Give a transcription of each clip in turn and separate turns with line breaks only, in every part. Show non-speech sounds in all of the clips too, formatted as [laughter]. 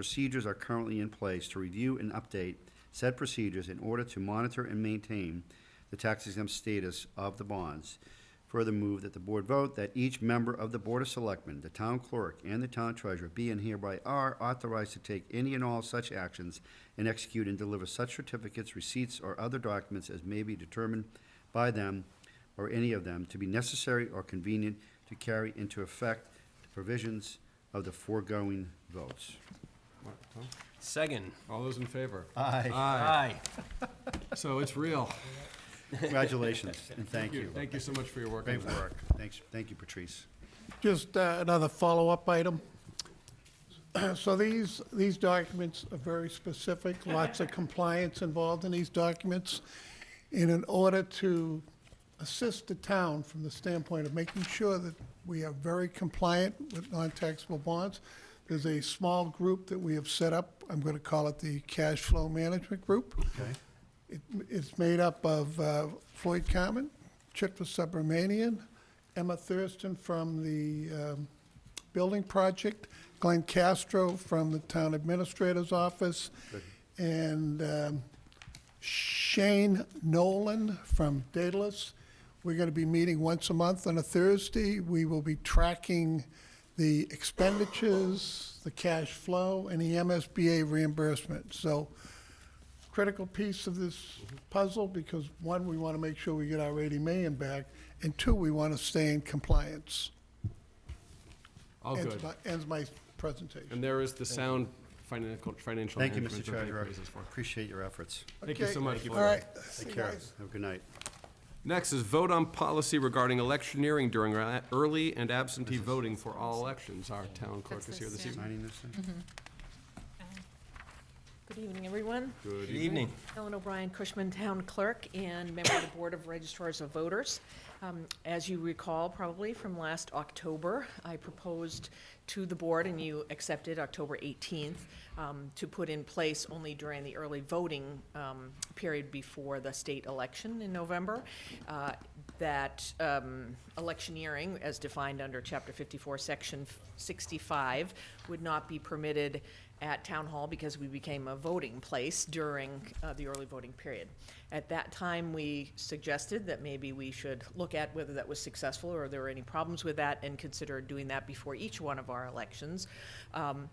Procedures are currently in place to review and update said procedures in order to monitor and maintain the tax exempt status of the bonds. Further move that the board vote that each member of the Board of Selectmen, the town clerk, and the town treasurer be and hereby are authorized to take any and all such actions and execute and deliver such certificates, receipts, or other documents as may be determined by them or any of them to be necessary or convenient to carry into effect the provisions of the foregoing votes.
What, Tom?
Second.
All those in favor?
Aye.
Aye.
So it's real.
Congratulations, and thank you.
Thank you so much for your work. on
Great
that.
work. Thanks, thank you, Patrice.
Just uh, another follow-up item. [clears throat] So these, these documents are very specific, lots of compliance involved in these documents. And in order to assist the town from the standpoint of making sure that we are very compliant with non-taxable bonds, there's a small group that we have set up. I'm going to call it the Cash Flow Management Group.
Okay.
It- It's made up of uh, Floyd Carmen, Chitwa Subramanian, Emma Thurston from the um, Building Project, Glenn Castro from the Town Administrator's Office, and um, Shane Nolan from Daedalus. We're going to be meeting once a month on a Thursday. We will be tracking the expenditures, the cash flow, and the MSBA reimbursement. So critical piece of this puzzle because one, we want to make sure we get our 80 million back, and two, we want to stay in compliance.
All
Ends
Oh, good.
my- Ends my presentation.
And there is the sound financial, financial
Thank you,
management.
Mr.
that they
Treasurer.
praise us for.
Appreciate your efforts.
Thank you
Okay,
so much.
All
Floyd.
right. See
Take
you
care.
guys.
Have a good night.
Next is vote on policy regarding electioneering during ra- early and absentee voting for all elections. Our town clerk
That's
is
the
here this
sound.
evening.
Signing this thing?
Good evening, everyone.
Good
Good evening.
Ellen O'Brien, Cushman Town Clerk and member of the Board of Registrars of Voters. Um, As you recall probably from last October, I proposed to the board, and you accepted October 18th, um, to put in place only during the early voting um, period before the state election in November, uh, that um, electioneering, as defined under Chapter 54, Section 65, would not be permitted at Town Hall because we became a voting place during uh, the early voting period. At that time, we suggested that maybe we should look at whether that was successful or there were any problems with that and consider doing that before each one of our elections. um,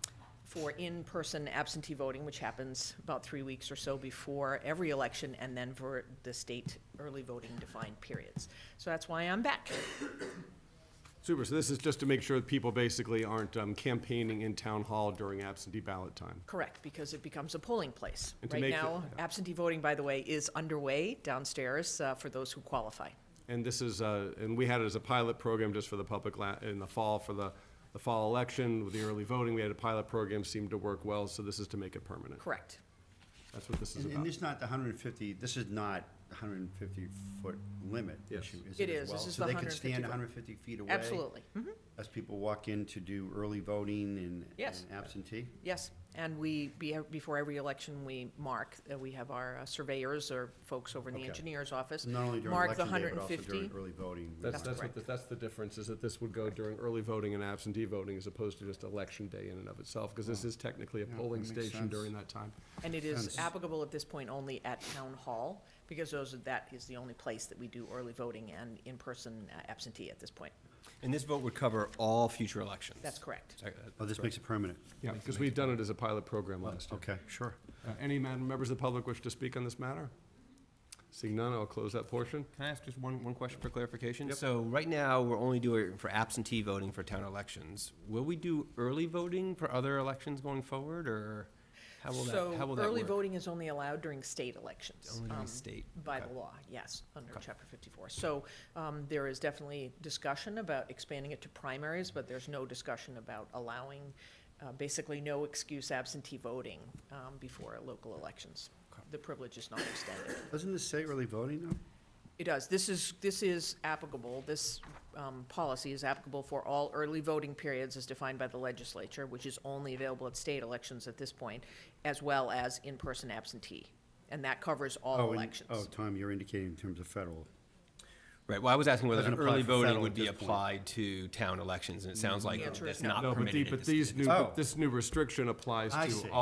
For in-person absentee voting, which happens about three weeks or so before every election, and then for the state early voting defined periods. So that's why I'm back.
Super. So this is just to make sure that people basically aren't um, campaigning in town hall during absentee ballot time.
Correct, because it becomes a polling place.
And to
Right
make the-
now, absentee voting, by the way, is underway downstairs uh, for those who qualify.
And this is, uh, and we had it as a pilot program just for the public la- in the fall for the, the fall election with the early voting. We had a pilot program, seemed to work well, so this is to make it permanent.
Correct.
That's what this is
Mm-hmm.
And-
about.
And it's not the 150, this is not the 150-foot limit
Yes.
issue, is
It
it as
is.
well?
This is the
So they can
150
stand
foot.
150 feet away?
Absolutely. Mhm.
As people walk in to do early voting and
Yes.
and absentee?
Yes, and we, be- before every election, we mark, uh, we have our uh, surveyors or folks over in the
Okay.
engineer's office.
So Not only during
mark the
election day, but also
150.
during early voting.
That's,
That's
that's what,
correct.
the- that's the difference, is that this would go during early voting and absentee voting as opposed to just election day in and of itself, because this is technically a
Yeah, that
polling
makes
station
sense.
during that time.
And it is
Sense.
applicable at this point only at town hall, because those, are- that is the only place that we do early voting and in-person uh, absentee at this point.
And this vote would cover all future elections.
That's correct.
Sorry,
Oh, this makes it permanent.
Yeah, because we've done it as a pilot program last year.
Okay, sure.
Uh, Any ma- members of the public wish to speak on this matter? Seeing none, I'll close that portion.
Can I ask just one, one question for clarification?
Yep.
So right now, we're only doing it for absentee voting for town elections. Will we do early voting for other elections going forward, or how will that, how will that
So early
work?
voting is only allowed during state elections.
Only during
um,
state?
By the
Okay.
law, yes, under
Okay.
chapter fifty-four. So, um, there is definitely discussion about expanding it to primaries, but there's no discussion about allowing, uh, basically no excuse absentee voting, um, before local elections. The privilege is not extended.
Doesn't this say early voting, though?
It does. This is, this is applicable, this um, policy is applicable for all early voting periods as defined by the legislature, which is only available at state elections at this point, as well as in-person absentee. And that covers all
Oh, and- Oh,
elections.
Tom, you're indicating in terms of federal.
Right, well, I was asking whether
Doesn't apply
early
for
voting
federal
would
at
be
this point.
applied to town elections, and it sounds like
Yeah, true.
that's not
No, but the-
permitted at
but
this-
these new,
Oh.
but this new restriction applies
I
to
see.
all.